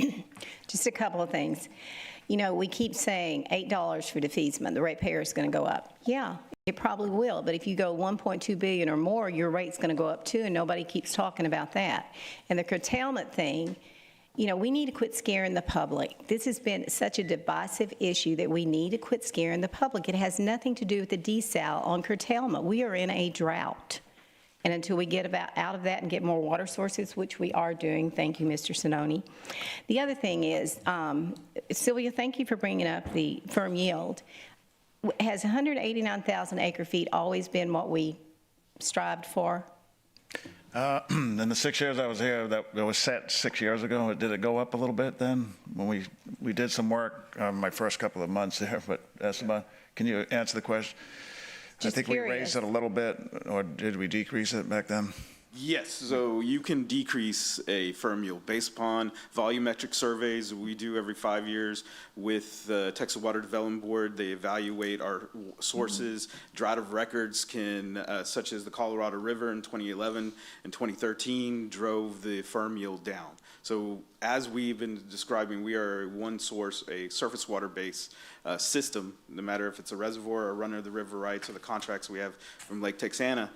Just a couple of things. You know, we keep saying $8 for defeasance, the rate payer is going to go up. Yeah, it probably will, but if you go 1.2 billion or more, your rate's going to go up too, and nobody keeps talking about that. And the curtailment thing, you know, we need to quit scaring the public. This has been such a divisive issue that we need to quit scaring the public. It has nothing to do with the desal on curtailment. We are in a drought. And until we get about, out of that and get more water sources, which we are doing, thank you, Mr. Sinoni. The other thing is, um, Sylvia, thank you for bringing up the firm yield. W- Has 189,000 acre feet always been what we strived for? In the six years I was here, that it was set six years ago. Did it go up a little bit then? When we, we did some work, um, my first couple of months there, but Esteban, can you answer the question? I Just think we raised curious. it a little bit, or did we decrease it back then? Yes, so you can decrease a firm yield based upon volumetric surveys we do every five years with the Texas Water Development Board. They evaluate our sources, drought of records can, uh, such as the Colorado River in 2011 and 2013 drove the firm yield down. So as we've been describing, we are one source, a surface water-based uh, system, no matter if it's a reservoir or runner of the river rights or the contracts we have from Lake Texana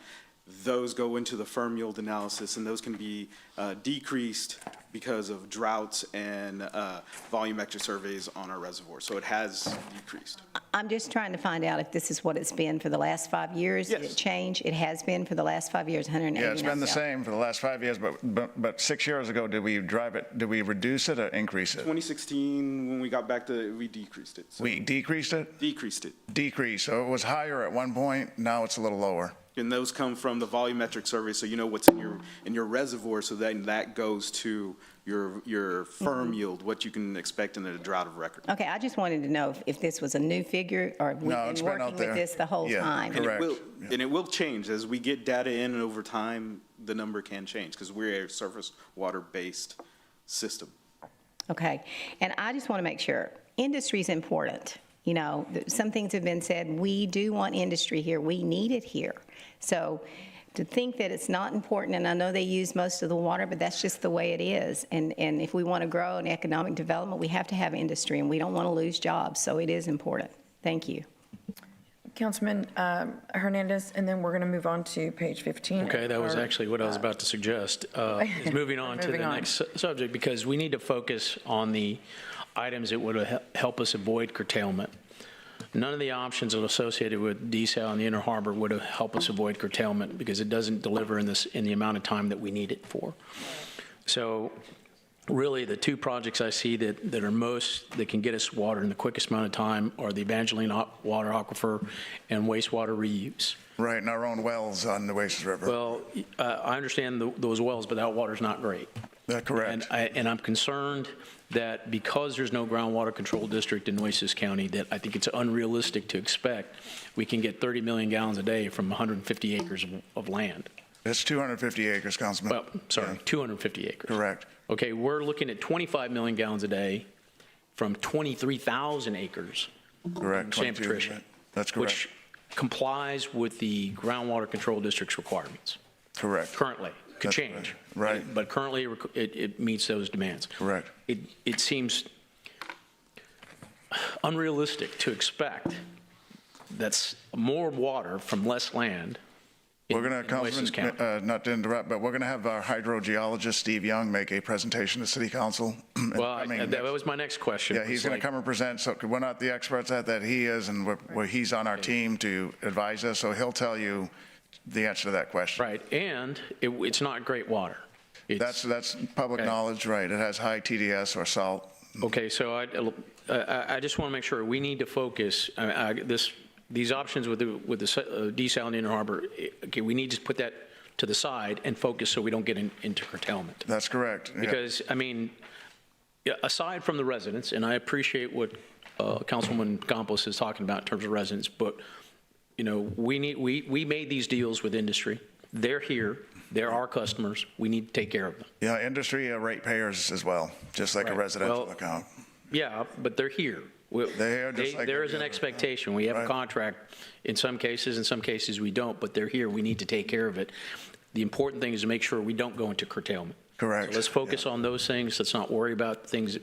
those go into the firm yield analysis, and those can be uh, decreased because of droughts and uh, volumetric surveys on our reservoir. So it has decreased. I'm just trying to find out if this is what it's been for the last five years. Did Yes. it change? It has been for the last five years, 189,000. Yeah, it's been the same for the last five years, but, but, but six years ago, did we drive it, did we reduce it or increase it? 2016, when we got back to, we decreased it. So We decreased it? decreased it. Decreased. So it was higher at one point, now it's a little lower. And those come from the volumetric survey, so you know what's in your, in your reservoir, so then that goes to your, your firm yield, what you can expect in a drought of record. Okay, I just wanted to know if- if this was a new figure or if we've No, it's been been working out there. with this the whole Yeah, time. And it Correct. will, and it will change as we get data in and over time, the number can change because we're a surface water-based system. Okay, and I just want to make sure, industry's important. You know, th- some things have been said, we do want industry here, we need it here. So to think that it's not important, and I know they use most of the water, but that's just the way it is. And, and if we want to grow in economic development, we have to have industry, and we don't want to lose jobs, so it is important. Thank you. Councilman um, Hernandez, and then we're going to move on to page 15. Okay, that was Or- actually what I was about to suggest, uh, is moving on to the Moving on. next su- subject, because we need to focus on the items that would hel- help us avoid curtailment. None of the options associated with desal and the Inner Harbor would have helped us avoid curtailment, because it doesn't deliver in this, in the amount of time that we need it for. So really, the two projects I see that, that are most, that can get us water in the quickest amount of time are the Evangeline Aqu- Water Aquifer and wastewater reuse. Right, and our own wells on the Oasis River. Well, uh, I understand tho- those wells, but that water's not great. That's And correct. I, and I'm concerned that because there's no groundwater control district in Nueces County, that I think it's unrealistic to expect we can get 30 million gallons a day from 150 acres of- of land. It's 250 acres, Councilman. Well, sorry, Yeah, 250 acres. Correct. Okay, we're looking at 25 million gallons a day from 23,000 acres. Correct. in San 22, Patricia. right. That's correct. Which complies with the groundwater control district's requirements. Correct. currently. Could That's change. right. Right. But currently, it, it meets those demands. Correct. It, it seems unrealistic to expect that's more water from less land. in- We're going in to, Nueces Councilman, County. uh, not to interrupt, but we're going to have our hydrogeologist, Steve Young, make a presentation to City Council. in the Well, I- coming that next- was my next question. Yeah, he's It's going to like, come and present, so we're not the experts at that, he is, and we're- we're- he's on our team to advise us, so he'll tell you the answer to that question. Right, and it, it's not great water. It's- That's, that's public Okay. knowledge, right, it has high TDS or salt. Okay, so I, I- I just want to make sure, we need to focus, I- I- this, these options with the, with the se- uh, desal and Inner Harbor, eh, okay, we need to put that to the side and focus so we don't get in- into curtailment. That's correct. yeah. Because, I mean, yeah, aside from the residents, and I appreciate what uh, Councilwoman Campos is talking about in terms of residents, but, you know, we need, we, we made these deals with industry. They're here, they're our customers, we need to take care of them. Yeah, industry uh, rate payers as well, just like a Right. residential Well, account. Yeah, but they're here. We- They're here just they- like There every is an other. expectation. We have a Right. contract in some cases, in some cases we don't, but they're here. We need to take care of it. The important thing is to make sure we don't go into curtailment. So Correct. Let's focus on those things. Let's not worry about things